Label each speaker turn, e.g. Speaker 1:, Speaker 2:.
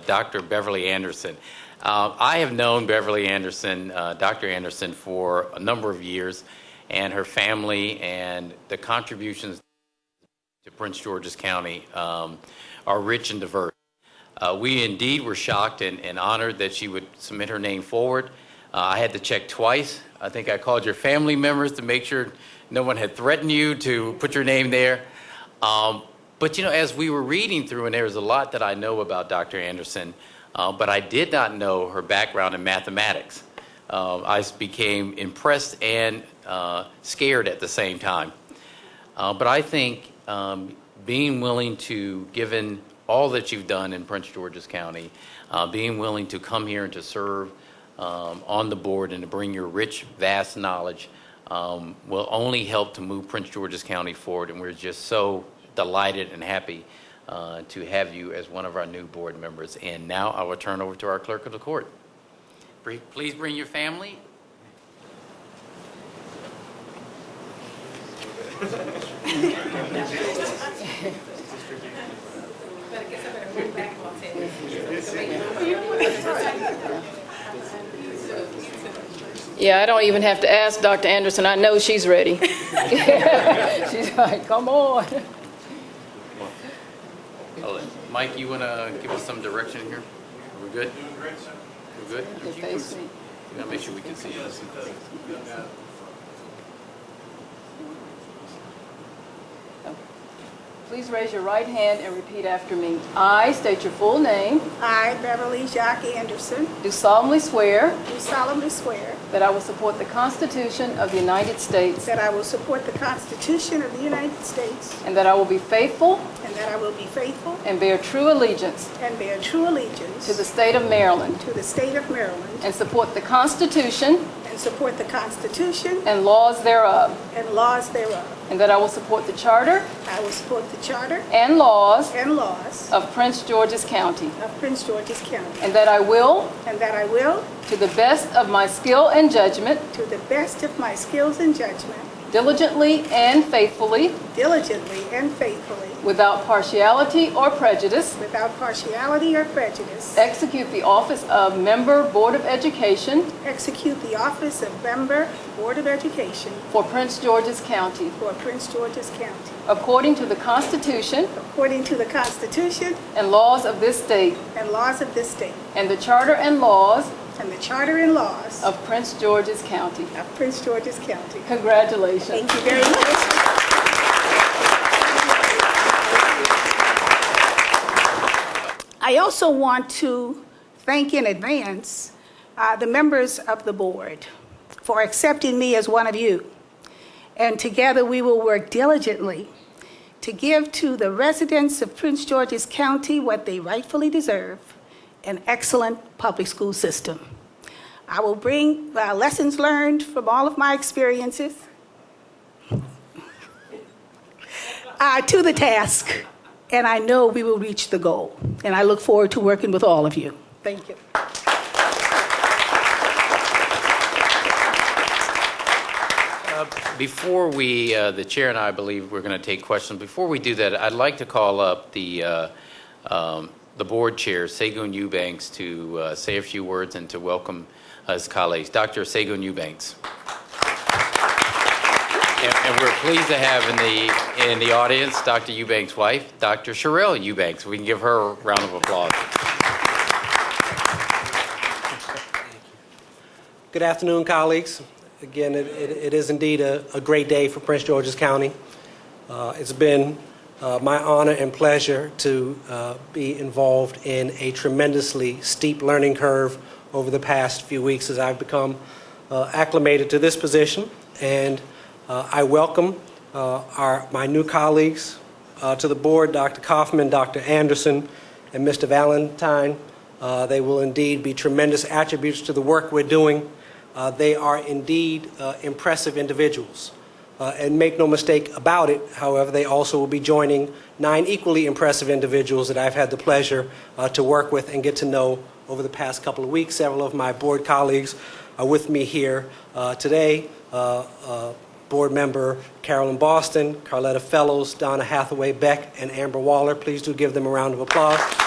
Speaker 1: Dr. uh, Beverly Anderson. Uh, I have known Beverly Anderson, uh, Dr. Anderson, for a number of years, and her family and the contributions to Prince George's County um, are rich and diverse. Uh, we indeed were shocked and, and honored that she would submit her name forward. Uh, I had to check twice. I think I called your family members to make sure no one had threatened you to put your name there. Um, but you know, as we were reading through, and there was a lot that I know about Dr. Anderson, uh, but I did not know her background in mathematics. Uh, I became impressed and uh, scared at the same time. Uh, but I think um, being willing to, given all that you've done in Prince George's County, uh, being willing to come here and to serve um, on the board and to bring your rich, vast knowledge um, will only help to move Prince George's County forward. And we're just so delighted and happy uh, to have you as one of our new board members. And now I will turn over to our clerk of the court. Bre- Please bring your family
Speaker 2: But I guess I better move back on ten.
Speaker 3: Yeah, I don't even have to ask Dr. Anderson. I know she's ready. She's like, come on.
Speaker 1: I'll let- Mike, you want to give us some direction here? Are we good? We're good?
Speaker 3: Just face me.
Speaker 1: We gotta make sure we can see this.
Speaker 3: Please raise your right hand and repeat after me. I state your full name,
Speaker 4: I, Beverly Jacques Anderson,
Speaker 3: do solemnly swear
Speaker 4: do solemnly swear
Speaker 3: that I will support the Constitution of the United States
Speaker 4: that I will support the Constitution of the United States
Speaker 3: and that I will be faithful
Speaker 4: and that I will be faithful
Speaker 3: and bear true allegiance
Speaker 4: and bear true allegiance
Speaker 3: to the state of Maryland
Speaker 4: to the state of Maryland
Speaker 3: and support the Constitution
Speaker 4: and support the Constitution
Speaker 3: and laws thereof,
Speaker 4: and laws thereof.
Speaker 3: and that I will support the charter
Speaker 4: I will support the charter
Speaker 3: and laws
Speaker 4: and laws
Speaker 3: of Prince George's County,
Speaker 4: of Prince George's County
Speaker 3: and that I will
Speaker 4: and that I will,
Speaker 3: To the best of my skill and judgment,
Speaker 4: to the best of my skills and judgment,
Speaker 3: diligently and faithfully,
Speaker 4: diligently and faithfully,
Speaker 3: without partiality or prejudice,
Speaker 4: without partiality or prejudice,
Speaker 3: execute the office of Member Board of Education
Speaker 4: execute the office of member Board of Education
Speaker 3: for Prince George's County,
Speaker 4: for Prince George's County.
Speaker 3: according to the Constitution
Speaker 4: According to the Constitution
Speaker 3: and laws of this state,
Speaker 4: and laws of this state,
Speaker 3: and the Charter and laws
Speaker 4: and the Charter and laws
Speaker 3: of Prince George's County.
Speaker 4: of Prince George's County.
Speaker 3: Congratulations.
Speaker 4: Thank you very much. I also want to thank in advance uh, the members of the board for accepting me as one of you. And together, we will work diligently to give to the residents of Prince George's County what they rightfully deserve, an excellent public school system. I will bring uh, lessons learned from all of my experiences uh, to the task, and I know we will reach the goal. And I look forward to working with all of you. Thank you.
Speaker 1: Before we, uh, the chair and I believe we're going to take questions. Before we do that, I'd like to call up the, uh, um, the board chair, Segun Eubanks, to uh, say a few words and to welcome his colleagues. Dr. Segun Eubanks. And and we're pleased to have in the, in the audience, Dr. Eubanks' wife, Dr. Sherelle Eubanks. We can give her a round of applause.
Speaker 5: Good afternoon, colleagues. Again, it, it, it is indeed a, a great day for Prince George's County. Uh, it's been uh, my honor and pleasure to uh, be involved in a tremendously steep learning curve over the past few weeks as I've become uh, acclimated to this position. And uh, I welcome uh, our, my new colleagues uh, to the board, Dr. Kaufman, Dr. Anderson, and Mr. Valentine. Uh, they will indeed be tremendous attributes to the work we're doing. Uh, they are indeed uh, impressive individuals. Uh, and make no mistake about it, however, they also will be joining nine equally impressive individuals that I've had the pleasure uh, to work with and get to know over the past couple of weeks. Several of my board colleagues are with me here uh, today. Uh, uh, Board member Carolyn Boston, Carletta Fellows, Donna Hathaway Beck, and Amber Waller. Please do give them a round of applause.